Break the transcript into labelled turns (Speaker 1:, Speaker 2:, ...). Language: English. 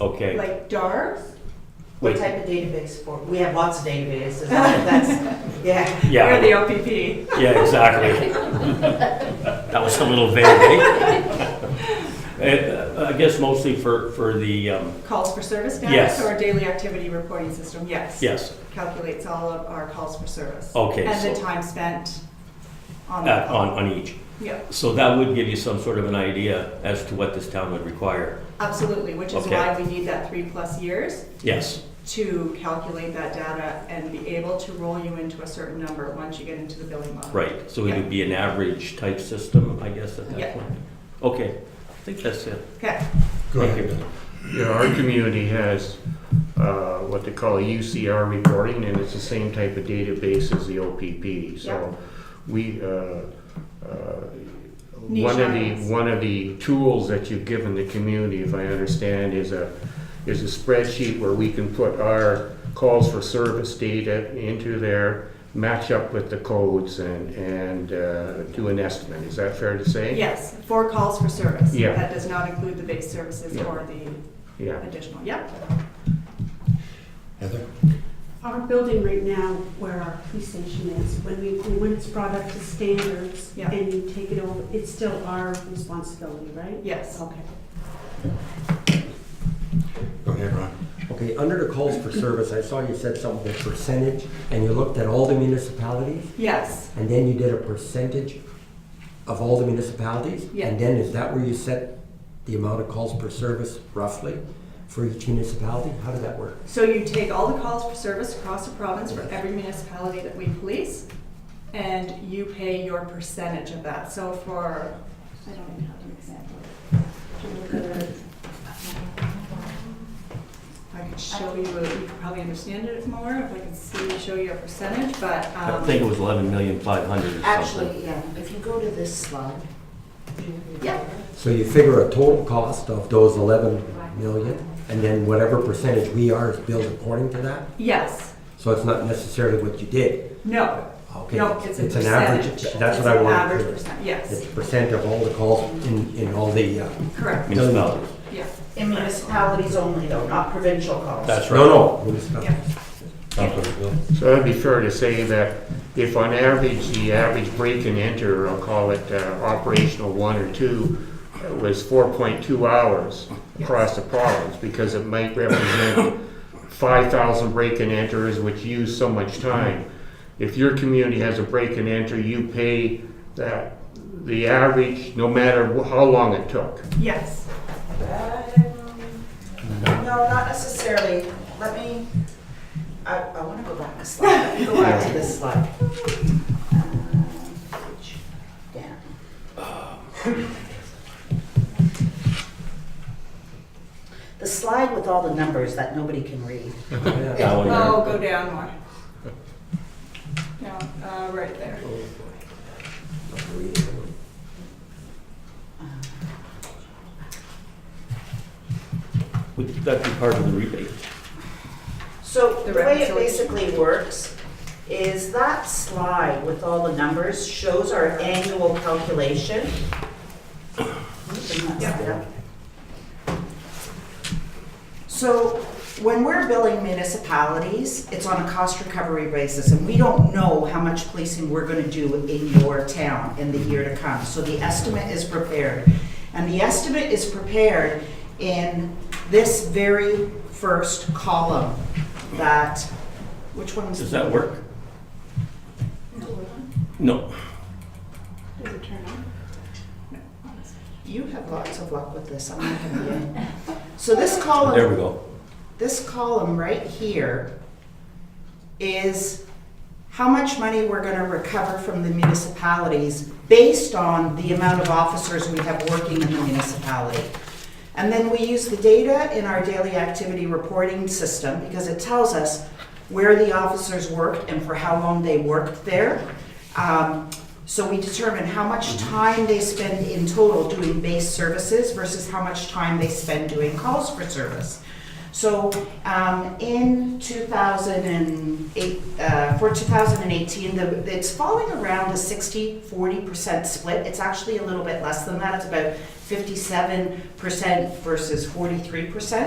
Speaker 1: Okay,
Speaker 2: Like DARS?
Speaker 3: What
Speaker 1: Wait.
Speaker 3: type of database for, we have lots of databases, that's, yeah.
Speaker 1: yeah,
Speaker 2: We're the OPP.
Speaker 1: yeah, exactly. That was a little vague, eh? Uh, I guess mostly for, for the, um,
Speaker 2: Calls for service
Speaker 1: Yes.
Speaker 2: status or daily activity reporting system, yes.
Speaker 1: yes,
Speaker 2: Calculates all of our calls for service.
Speaker 1: Okay,
Speaker 2: And the
Speaker 1: so-
Speaker 2: time spent on
Speaker 1: uh,
Speaker 2: the
Speaker 1: on,
Speaker 2: call.
Speaker 1: on each.
Speaker 2: Yeah,
Speaker 1: So that would give you some sort of an idea as to what this town would require.
Speaker 2: absolutely, which is
Speaker 1: Okay.
Speaker 2: why we need that three plus years
Speaker 1: Yes,
Speaker 2: to calculate that data and be able to roll you into a certain number once you get into the billing model.
Speaker 1: right, so it would be an average type system, I guess, at
Speaker 2: Yeah.
Speaker 1: that point. Okay, I think that's it.
Speaker 2: Okay,
Speaker 4: Go
Speaker 1: Thank
Speaker 4: ahead.
Speaker 1: you.
Speaker 5: Yeah, our community has uh, what they call a UCR reporting, and it's the same type of database as the OPP. So we, uh, uh,
Speaker 2: Niche
Speaker 5: one of the,
Speaker 2: audience.
Speaker 5: one of the tools that you've given the community, if I understand, is a, is a spreadsheet where we can put our calls for service data into there, match up with the codes and, and uh, do an estimate. Is that fair to say?
Speaker 2: yes, four calls for service.
Speaker 5: Yeah.
Speaker 2: That does not include the base services
Speaker 5: Yeah.
Speaker 2: or the
Speaker 5: Yeah.
Speaker 2: additional, yep.
Speaker 4: Heather?
Speaker 6: Our building right now, where our police station is, when we, when it's brought up to standards
Speaker 2: Yeah.
Speaker 6: and you take it over, it's still our responsibility, right?
Speaker 2: Yes.
Speaker 6: Okay.
Speaker 4: Go ahead, Ron.
Speaker 7: Okay, under the calls for service, I saw you said something, about percentage, and you looked at all the municipalities,
Speaker 2: Yes,
Speaker 7: and then you did a percentage of all the municipalities?
Speaker 2: Yeah.
Speaker 7: And then is that where you set the amount of calls per service roughly for each municipality? How did that work?
Speaker 2: so you take all the calls for service across the province for every municipality that we police, and you pay your percentage of that. So for, I don't even have an example. Do you look at it? I could show you, you could probably understand it more if I could see, show you a percentage, but,
Speaker 1: I
Speaker 2: um,
Speaker 1: think it was eleven million five hundred or something.
Speaker 3: Actually, yeah, if you go to this slide.
Speaker 2: Yeah.
Speaker 7: So you figure a total cost of those 11 million, and then whatever percentage we are is billed according to that?
Speaker 2: yes,
Speaker 7: So it's not necessarily what you did?
Speaker 2: no,
Speaker 7: Okay,
Speaker 2: no, it's a
Speaker 7: an average.
Speaker 2: percentage.
Speaker 7: That's
Speaker 2: It's
Speaker 7: what I
Speaker 2: an
Speaker 7: wanted.
Speaker 2: Average
Speaker 7: to-
Speaker 2: percent,
Speaker 7: It's
Speaker 2: yes,
Speaker 7: percent of all the calls in, in all the, uh,
Speaker 2: correct,
Speaker 1: Municipalities,
Speaker 2: yeah.
Speaker 3: In municipalities only though, not provincial calls.
Speaker 1: that's right.
Speaker 7: no, no, it's not.
Speaker 2: Yeah.
Speaker 5: So it'd be fair to say that if on average, the average break and enter, I'll call it uh, operational one or two, uh, was 4.2 hours across the province, because it might represent 5,000 break and enters, which use so much time. If your community has a break and enter, you pay that, the average, no matter wh- how long it took.
Speaker 2: Yes,
Speaker 3: Um, No, not necessarily. Let me, I, I want to go back a slide. Let me go back to this slide. Down. The slide with all the numbers that nobody can read.
Speaker 7: Yeah.
Speaker 1: Now we are-
Speaker 2: oh, go down more. Down, uh, right there.
Speaker 1: Would that be part of the rebate?
Speaker 3: So
Speaker 2: The
Speaker 3: the way it
Speaker 2: reconciliation.
Speaker 3: basically works is that slide with all the numbers shows our annual calculation.
Speaker 2: Yeah.
Speaker 3: So when we're billing municipalities, it's on a cost recovery basis, and we don't know how much policing we're gonna do in your town in the year to come. So the estimate is prepared. And the estimate is prepared in this very first column that, which one's?
Speaker 1: Does that work? No.
Speaker 3: You have lots of luck with this, I'm not gonna be. So this column.
Speaker 1: There we go.
Speaker 3: this column right here is how much money we're gonna recover from the municipalities based on the amount of officers we have working in the municipality. And then we use the data in our daily activity reporting system because it tells us where the officers worked and for how long they worked there. Um, So we determine how much time they spend in total doing base services versus how much time they spend doing calls for service. So um, in 2008, uh, for 2018, the- it's falling around the 60, 40% split. It's actually a little bit less than that. It's about 57% versus 43%.